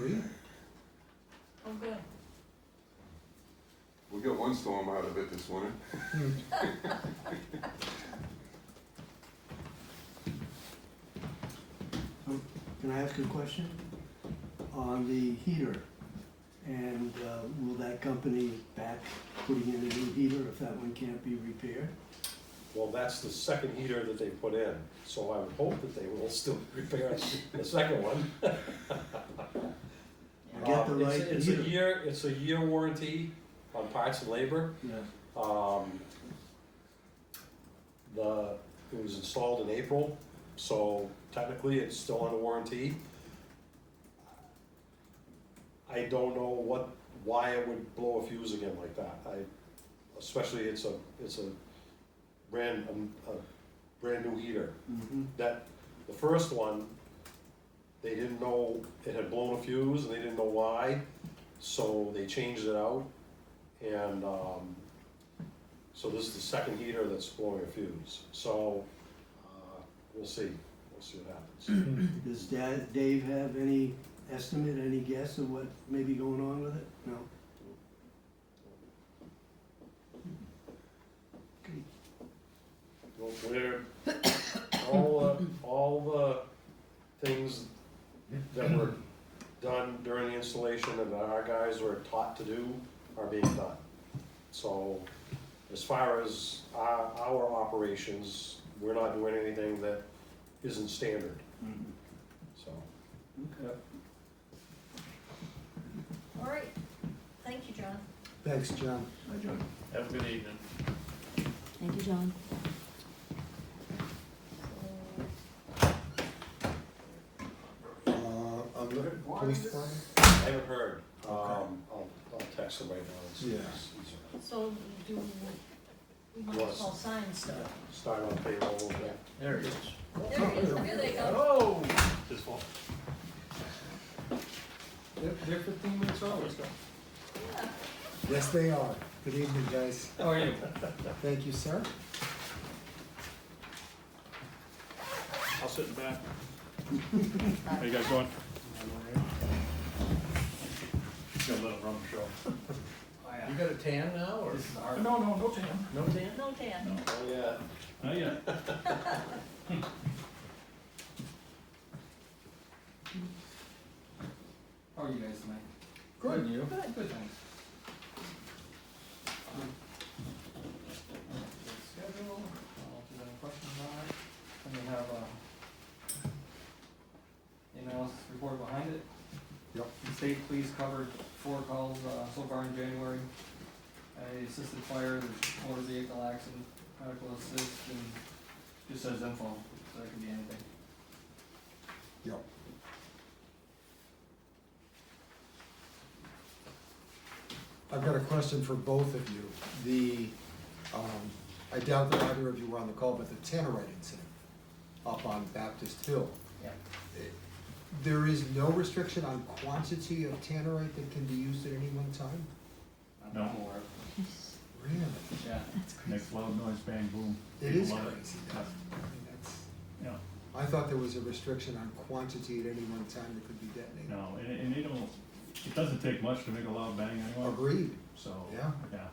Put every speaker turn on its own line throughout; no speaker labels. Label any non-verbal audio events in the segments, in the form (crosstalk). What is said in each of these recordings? Lee?
Oh, good.
We got one storm out of it this winter.
Can I ask a question? On the heater, and uh, will that company back putting in a new heater if that one can't be repaired?
Well, that's the second heater that they put in, so I would hope that they will (laughs) still repair the second one.
I get the
Um, it's-
right
It's a
heater.
year, it's a year warranty on parts and labor.
Yeah.
Um, The, it was installed in April, so technically it's still under warranty. I don't know what, why it would blow a fuse again like that. I, especially it's a, it's a brand, um, a brand new heater
Mm-hmm.
that, the first one, they didn't know, it had blown a fuse, and they didn't know why, so they changed it out. And, um, so this is the second heater that's blowing a fuse, so, uh, we'll see, we'll see what happens.
Does Da- Dave have any estimate, any guess of what may be going on with it? No? Okay.
Well, We're, all, the- all the things that were done during the installation and that our guys were taught to do are being done. So as far as our, our operations, we're not doing anything that isn't standard, so.
Okay.
All right. Thank you, John.
Thanks, John. Hi, John.
Have a good evening.
Thank you, John.
Uh, on the police department?
I haven't heard, um, I'll, I'll text them right now and see.
Yeah.
So, so do, we might as well sign stuff.
Start on payroll, yeah.
There it is.
There it is, there they go.
Oh! This one. They're, they're fifteen minutes over, so.
Yeah.
Yes, they are. Good evening, guys.
How are you?
Thank you, sir.
I'll sit in back. How you guys doing? Got a little rum show.
Oh, You got a tan now, or?
No, no, no tan.
No tan?
No, Dan.
Oh, yeah.
Not yet.
How are you guys tonight? Good, you? Good, good, thanks. Schedule, uh, if there's any questions on it, and we have, uh, the analysis report behind it.
Yep.
The state police covered four calls, uh, so far in January. I assisted fire, there's motor vehicle accident, medical assist, and just says info, so that could be anything.
Yep. I've got a question for both of you. The, um, I doubt that either of you were on the call, but the Tannerite incident up on Baptist Hill.
Yep.
It- There is no restriction on quantity of Tannerite that can be used at any one time?
I'm
No.
aware of-
Really?
Yeah.
That's crazy.
Makes loud noise, bang, boom.
It
People
is
love
crazy, though. I mean, that's.
Yeah.
I thought there was a restriction on quantity at any one time that could be detonated.
No, and, and they don't, it doesn't take much to make a loud bang anyway,
Agreed,
so.
Yeah.
Yeah.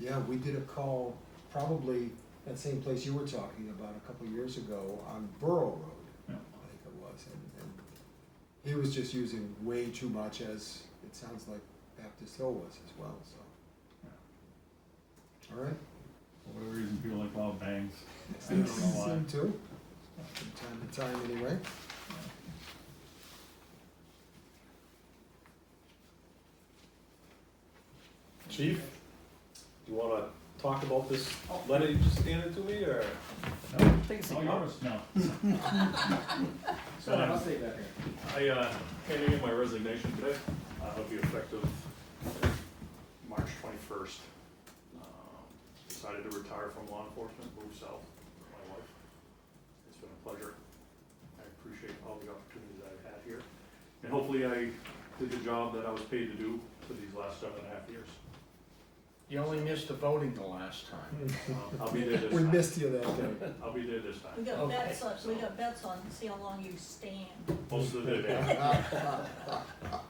yeah, we did a call, probably that same place you were talking about a couple years ago on Borough Road, I
Yeah.
think it was, and, and he was just using way too much as, it sounds like Baptist Hill was as well, so. All right?
For whatever reason, people like loud bangs.
Yes,
I don't know why.
Seem to, from time to time anyway.
Chief, you wanna talk about this letter you just handed to me, or?
No,
Take a
All Oh, yours, no.
Shut up, I'll stay back here.
I uh, handed in my resignation today. Uh, It'll be effective March 21st. Um, Decided to retire from law enforcement, move south with my wife. It's been a pleasure. I appreciate all the opportunities I've had here. And hopefully I did the job that I was paid to do for these last seven and a half years.
You only missed the voting the last time.
Um, I'll be
(laughs)
there
We
this
missed you that day.
time. I'll be there this
We
time.
got
Okay.
bets on, we got bets on, see how long you stand.
Most of the day.